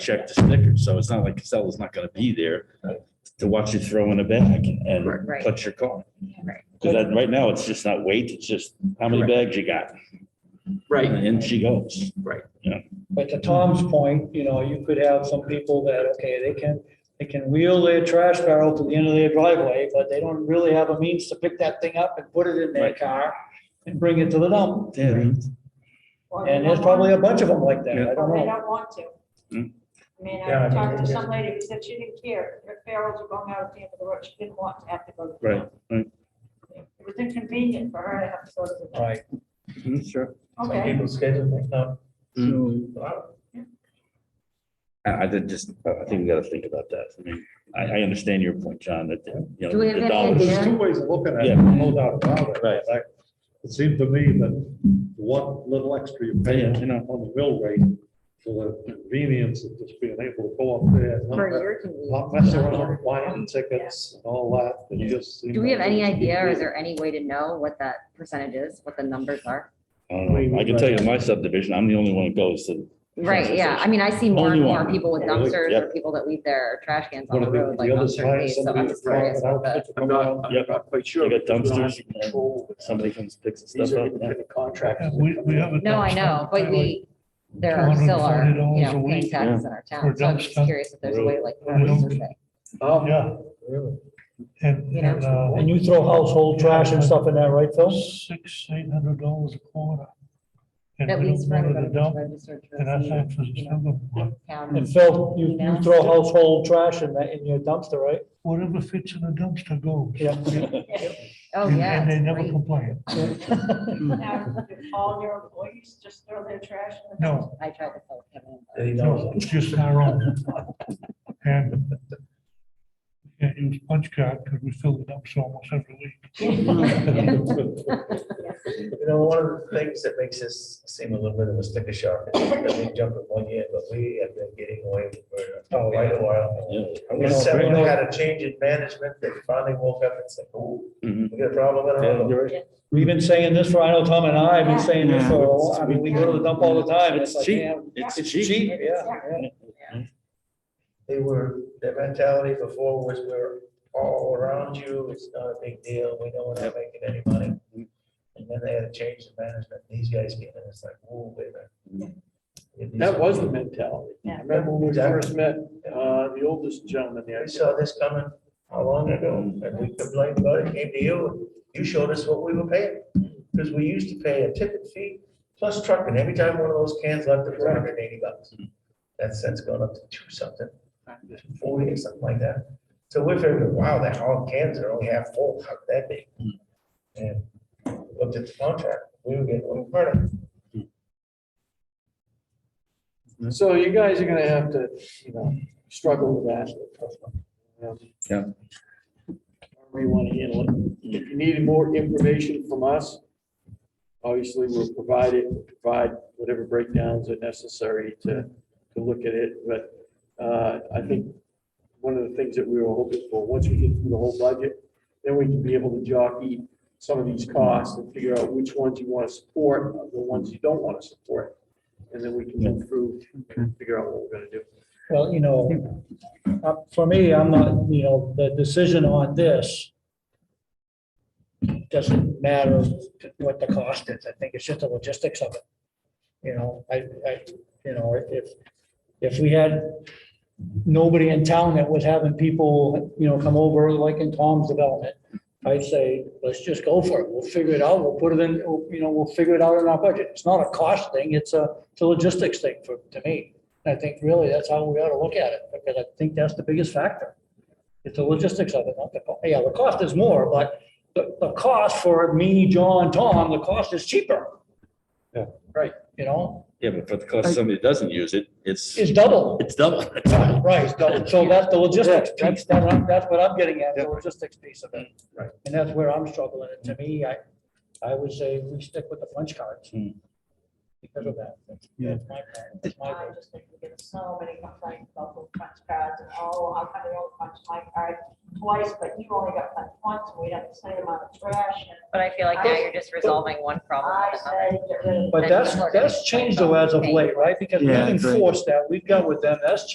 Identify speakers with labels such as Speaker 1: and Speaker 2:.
Speaker 1: check the sticker, so it's not like Casella's not gonna be there to watch you throw in a bag and
Speaker 2: Right.
Speaker 1: clutch your car.
Speaker 2: Right.
Speaker 1: Cause that, right now, it's just not weight, it's just how many bags you got,
Speaker 3: Right,
Speaker 1: and in she goes.
Speaker 4: But to
Speaker 1: Mm-hmm.
Speaker 4: Tom's point, you know, you could have some people that, okay, they can, they can wheel their trash barrel to the end of their driveway, but they don't really have a means to pick that thing up and put it in their
Speaker 1: Right.
Speaker 4: car and bring it to the dump.
Speaker 1: Yeah.
Speaker 5: Or they
Speaker 4: And there's
Speaker 5: don't
Speaker 4: probably a
Speaker 5: want-
Speaker 4: bunch of them like that.
Speaker 1: Yeah.
Speaker 4: I don't
Speaker 5: Or they
Speaker 4: know.
Speaker 5: don't want to.
Speaker 1: Hmm.
Speaker 5: I mean,
Speaker 6: Yeah,
Speaker 5: I
Speaker 6: I mean,
Speaker 5: talked to
Speaker 6: yeah.
Speaker 5: some lady who said she didn't care, her barrels were going out at the end of the road, she didn't want to have to go. to the
Speaker 1: Right,
Speaker 5: dump.
Speaker 1: right.
Speaker 5: It was inconvenient for her to have to go to the dump.
Speaker 4: Right.
Speaker 3: Mm-hmm,
Speaker 1: Sure.
Speaker 6: Some
Speaker 5: Okay,
Speaker 6: people schedule things now.
Speaker 1: I, I did just, I think we gotta think about that, I mean, I, I understand your point, John, that, you know.
Speaker 2: Do we have
Speaker 1: the
Speaker 2: any
Speaker 1: dollars-
Speaker 2: idea?
Speaker 6: There's two ways of looking at
Speaker 1: Yeah.
Speaker 6: it, no doubt about it.
Speaker 1: Right.
Speaker 6: Like, It seemed to me that one little extra you pay
Speaker 1: Yeah, you know.
Speaker 6: on the mill rate for the convenience of just being able to go up there. and not
Speaker 2: For
Speaker 6: mess-
Speaker 2: your
Speaker 6: Not mess around
Speaker 2: convenience.
Speaker 6: with buying tickets and all that, and just. you
Speaker 2: Do we have
Speaker 6: know,
Speaker 2: any
Speaker 6: just
Speaker 2: idea or
Speaker 6: keep
Speaker 2: is there any way to know what that percentage is, what the numbers are?
Speaker 1: I don't know. I can tell you in my subdivision, I'm the only one that goes to.
Speaker 2: Right, yeah, I mean, I see more
Speaker 1: Only
Speaker 2: and more
Speaker 1: one.
Speaker 2: people with
Speaker 6: Oh, Yeah, like,
Speaker 2: dumpsters or
Speaker 1: yep.
Speaker 2: people that leave their trash cans on
Speaker 6: One
Speaker 2: the
Speaker 6: of the,
Speaker 2: road, like
Speaker 6: the other
Speaker 2: on certain
Speaker 6: side,
Speaker 2: days, so I'm
Speaker 6: somebody.
Speaker 2: just curious about that.
Speaker 3: I'm not, I'm
Speaker 1: Yep.
Speaker 3: not quite sure.
Speaker 1: They got
Speaker 3: because we don't have
Speaker 1: dumpsters and-
Speaker 3: control of it.
Speaker 1: Somebody comes picks the
Speaker 3: These
Speaker 1: stuff
Speaker 3: are
Speaker 1: up. yeah.
Speaker 3: independent contractors.
Speaker 6: Yeah, we- we have a
Speaker 2: No, I know, but we, there are still are, you know, paying taxes in our town, so I'm just curious if there's a way like. more research that-
Speaker 3: Oh,
Speaker 6: Yeah.
Speaker 3: really?
Speaker 6: And,
Speaker 2: You know? and,
Speaker 4: And uh, you throw household trash and stuff in that, right, Phil?
Speaker 6: six, eight hundred dollars a quarter.
Speaker 2: That leads for everybody to register to receive, you know, town.
Speaker 4: And Phil, you, you throw household trash in that, in your dumpster, right?
Speaker 6: whatever fits in a dumpster goes.
Speaker 4: Yeah.
Speaker 2: Oh,
Speaker 6: And-
Speaker 2: yeah.
Speaker 6: And they
Speaker 2: it's
Speaker 6: never
Speaker 2: great.
Speaker 6: complain.
Speaker 5: now, do all your employees just throw their trash in the.
Speaker 6: No,
Speaker 2: I tried to tell Kevin. but-
Speaker 3: No.
Speaker 6: no, it's just our own. And we can't use punch card because we fill it up so almost every week.
Speaker 7: You know, one of the things that makes us seem a little bit of a sticker shock, is that we jump in one year, but we have been getting away with murder for quite a while.
Speaker 1: Yeah.
Speaker 7: We said we had a change in management, they finally woke up and said, oh,
Speaker 1: Mhm.
Speaker 7: we got a problem in
Speaker 1: Yeah,
Speaker 7: our
Speaker 1: you're
Speaker 7: road.
Speaker 1: right.
Speaker 4: We've been saying this for, I know Tom and I have been saying this for, a while. I mean, we go to the dump all the time. It's
Speaker 1: It's
Speaker 4: like,
Speaker 1: cheap,
Speaker 4: yeah,
Speaker 1: it's
Speaker 4: it's
Speaker 1: cheap.
Speaker 4: cheap, yeah. yeah.
Speaker 7: They were, their mentality before was we're all around you, it's not a big deal, we know we're not making any money.
Speaker 3: Mm.
Speaker 7: And then they had a change in management, these guys came in, it's like, oh, wait a minute. Get these
Speaker 3: That was the
Speaker 7: people-
Speaker 3: mentality.
Speaker 5: Yeah.
Speaker 3: I remember when we first met, uh, the oldest gentleman there.
Speaker 7: We saw this coming how long ago, and we complained about it, came to you, and you showed us what we were paying. Because we used to pay a tippet fee plus trucking, every time one of those cans left, it was hundred and eighty bucks.
Speaker 3: Mm-hmm.
Speaker 7: That's, that's gone up to two something, two forty or something like that. So we figured, wow, that all cans are only half full, how could that be?
Speaker 3: Mm-hmm.
Speaker 7: And looked at the contract, we were getting a little harder.
Speaker 3: Mm-hmm. So you guys are gonna have to, you know, struggle with that.
Speaker 1: Yeah.
Speaker 3: However you wanna handle it. If you need more information from us, obviously we'll provide it, provide whatever breakdowns are necessary to, to look at it. But uh, I think one of the things that we were hoping for, once we get through the whole budget, then we can be able to jockey some of these costs and figure out which ones you wanna support, the ones you don't wanna support. And then we can move through and figure out what we're gonna do.
Speaker 4: Well, you know, uh, for me, I'm not, you know, the decision on this doesn't matter what the cost is. I think it's just the logistics of it. You know, I, I, you know, if, if we had nobody in town that was having people, you know, come over like in Tom's development, I'd say, let's just go for it. We'll figure it out. We'll put it in, you know, we'll figure it out in our budget. It's not a cost thing. It's a, it's a logistics thing for, to me. I think really that's how we ought to look at it, because I think that's the biggest factor. It's the logistics of it, not the, co- yeah, the cost is more, but the, the cost for me, John, Tom, the cost is cheaper.
Speaker 3: Yeah.
Speaker 4: Right, you know,
Speaker 1: Yeah, but for the cost of somebody that doesn't use it, it's,
Speaker 4: it's double.
Speaker 1: it's double.
Speaker 4: Right, so that's the logistics
Speaker 1: Yeah.
Speaker 4: piece, that's, what I'm- that's what I'm getting at, the
Speaker 1: Yeah.
Speaker 4: logistics piece of it.
Speaker 7: Right.
Speaker 4: And that's where I'm struggling, and to me, I, I would say we stick with the punch cards.
Speaker 1: Hmm.
Speaker 4: Because of that. That's
Speaker 6: Yeah.
Speaker 4: my point. That's my
Speaker 5: I
Speaker 4: point.
Speaker 5: just think we get so many complaints about those punch cards and, oh, how come you don't punch my card twice, but you only got punched once and we have the same amount of trash. and
Speaker 2: But I feel like now you're just resolving one problem
Speaker 5: I
Speaker 2: with another.
Speaker 5: say, get rid of
Speaker 4: But that's, that's changed though as of late, right? Because we've
Speaker 8: Yeah, right.
Speaker 4: enforced that, we've got with them, that's